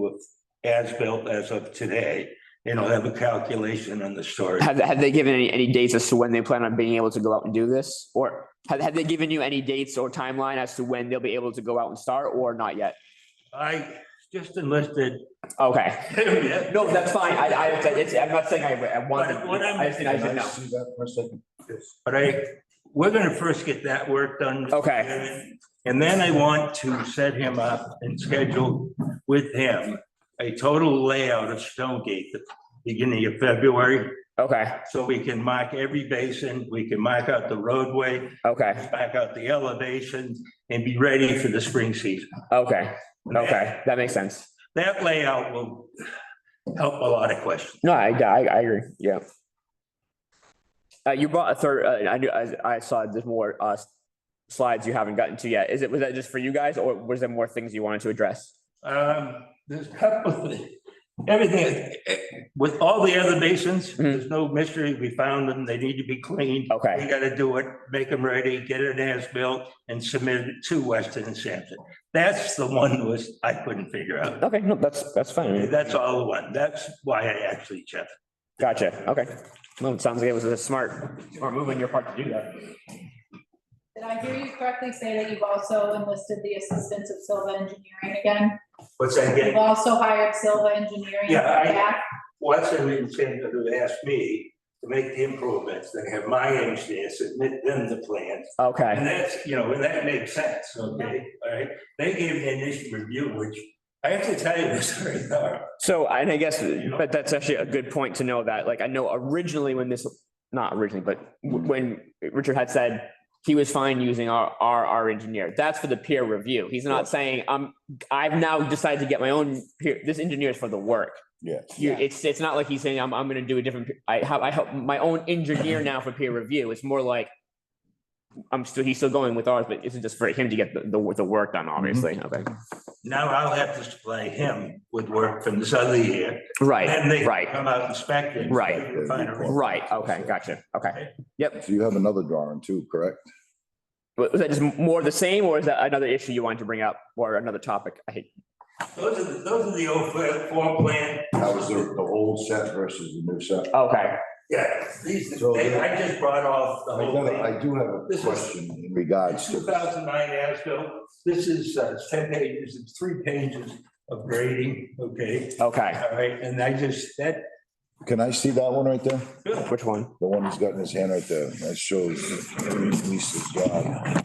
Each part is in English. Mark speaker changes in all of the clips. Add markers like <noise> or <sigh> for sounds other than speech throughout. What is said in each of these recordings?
Speaker 1: with as-built as of today, and I'll have a calculation on the storage.
Speaker 2: Have, have they given any, any dates as to when they plan on being able to go out and do this? Or have, have they given you any dates or timeline as to when they'll be able to go out and start or not yet?
Speaker 1: I just enlisted.
Speaker 2: Okay.
Speaker 1: Yeah,
Speaker 2: No, that's fine. I, I, it's, I'm not saying I, I want
Speaker 1: But what
Speaker 2: to,
Speaker 1: I'm-
Speaker 2: I just think I should know.
Speaker 3: See that for a second.
Speaker 1: But I, we're gonna first get that work done. Mr.
Speaker 2: Okay.
Speaker 1: Chairman. And then I want to set him up and schedule with him a total layout of Stonegate, the beginning of February,
Speaker 2: Okay,
Speaker 1: so we can mark every basin, we can mark out the roadway,
Speaker 2: okay,
Speaker 1: back out the elevation, and be ready for the spring season.
Speaker 2: okay, okay. That makes sense.
Speaker 1: That layout will help a lot of questions.
Speaker 2: No, I, I, I agree. Yeah. Uh, you brought a third, uh, I knew, I, I saw there's more, uh, slides you haven't gotten to yet. Is it, was that just for you guys or was there more things you wanted to address?
Speaker 1: Um, there's a couple of, things. everything, eh, with all the other basins, there's no mystery. We found them. They need to be cleaned. We
Speaker 2: Okay,
Speaker 1: gotta do it, make them ready, get an as-built and submit it to Weston and Sampson. That's the one was, I couldn't figure out.
Speaker 2: okay, no, that's, that's fine. I mean,
Speaker 1: That's all the one. That's why I actually checked.
Speaker 2: Gotcha, okay. Well, it sounds like it was a smart, smart move on your part to do that.
Speaker 4: Did I hear you correctly say that you've also enlisted the assistance of Silva Engineering again?
Speaker 1: What's that
Speaker 4: You've
Speaker 1: again?
Speaker 4: also hired Silva Engineering
Speaker 1: Yeah, I-
Speaker 4: back?
Speaker 1: Weston and Sampson who asked me to make the improvements, then have my engineer submit them the plans. And
Speaker 2: Okay,
Speaker 1: that's, you know, and that makes sense, okay, all right? They gave me an initial review, which I have to tell you <laughs> was very thorough.
Speaker 2: so, and I guess, but that's actually a good point to know that, like, I know originally when this, not originally, but w- when Richard had said he was fine using our, our, our engineer, that's for the peer review. He's not saying, um, I've now decided to get my own peer, this engineer is for the work.
Speaker 3: Yeah.
Speaker 2: You, it's, it's not like he's saying, I'm, I'm gonna do a different, pe- I have, I have my own engineer now for peer review. It's more like I'm still, he's still going with ours, but it's just for him to get the, the, the work done, obviously. Okay.
Speaker 1: Now I'll have to supply him with work from this other year,
Speaker 2: Right,
Speaker 1: and they can
Speaker 2: right.
Speaker 1: come out inspecting.
Speaker 2: Right.
Speaker 1: Refinery.
Speaker 2: right. Okay, gotcha. Okay. Yep.
Speaker 3: So you have another drawing too, correct?
Speaker 2: Wa- Was that just more of the same or is that another issue you wanted to bring up or another topic? I hate,
Speaker 1: Those are, the- those are the old fl- floor plan,
Speaker 3: That was the, the old set versus the new set.
Speaker 2: okay,
Speaker 1: yeah, these,
Speaker 3: So
Speaker 1: they-
Speaker 3: the-
Speaker 1: I just brought off the
Speaker 3: I
Speaker 1: whole
Speaker 3: gotta-
Speaker 1: thing.
Speaker 3: I do have a
Speaker 1: This is-
Speaker 3: question in regards to.
Speaker 1: Two thousand nine ASBIL, this is uh, ten pages, it's three pages of grading, okay,
Speaker 2: okay.
Speaker 1: all right, and I just, that,
Speaker 3: Can I see that one right there?
Speaker 2: Which one?
Speaker 3: The one he's got in his hand right there. That shows Lisa's job.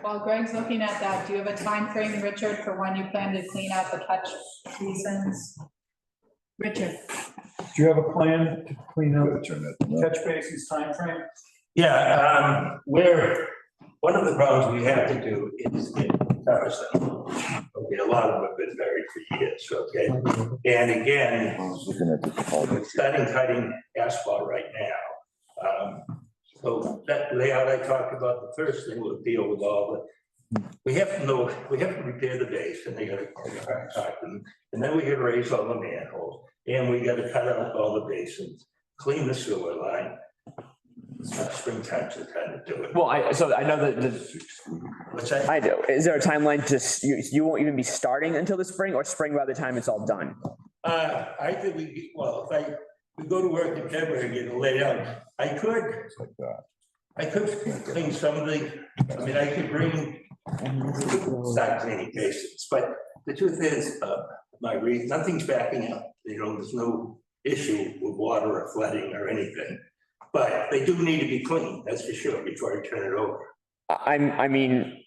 Speaker 4: While Greg's looking at that, do you have a time frame, Richard, for when you plan to clean out the catch basins? Richard,
Speaker 5: Do you have a plan to clean
Speaker 3: Gotta
Speaker 5: up
Speaker 3: turn that.
Speaker 5: catch basins timeframe?
Speaker 1: yeah, um, we're, one of the problems we have to do is get comparison. Okay, a lot of them have been buried for years, okay, and again,
Speaker 3: I was looking at the.
Speaker 1: we're starting cutting asphalt right now. Um, So that layout I talked about, the first thing will deal with all the, we have to know, we have to repair the base and they gotta contract them. And then we gotta raise all the manholes and we gotta cut out all the basins, clean the sewer line. It's not springtime to kind of do it.
Speaker 2: Well, I, so I know that the,
Speaker 1: What's that?
Speaker 2: I do. Is there a timeline to, s- you, you won't even be starting until the spring or spring by the time it's all done?
Speaker 1: Uh, I think we, well, if I, we go to work in February and get it laid out, I could
Speaker 3: It's like that.
Speaker 1: I could clean some of the, I mean, I could bring, start cleaning cases, but the truth is, uh, Marguerite, nothing's backing up. You know, there's no issue with water or flooding or anything. But they do need to be cleaned, that's for sure, before I turn it over.
Speaker 2: I- I'm, I mean,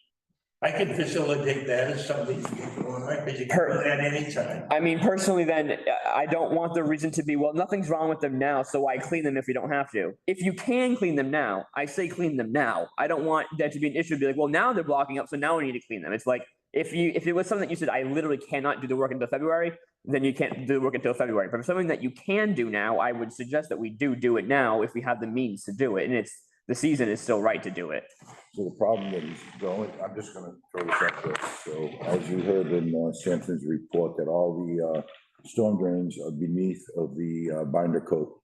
Speaker 1: I can facilitate that as something to get going, right? Because you can do that anytime.
Speaker 2: I mean, personally, then I- I don't want the reason to be, well, nothing's wrong with them now, so why clean them if you don't have to? If you can clean them now, I say clean them now. I don't want that to be an issue. Be like, well, now they're blocking up, so now we need to clean them. It's like if you if it was something that you said, I literally cannot do the work until February, then you can't do the work until February. But if something that you can do now, I would suggest that we do do it now if we have the means to do it, and it's the season is still right to do it.
Speaker 3: So the problem is, the only, I'm just gonna throw this up there. So as you heard in uh, Sampson's report, that all the uh, storm drains are beneath of the uh, binder coat.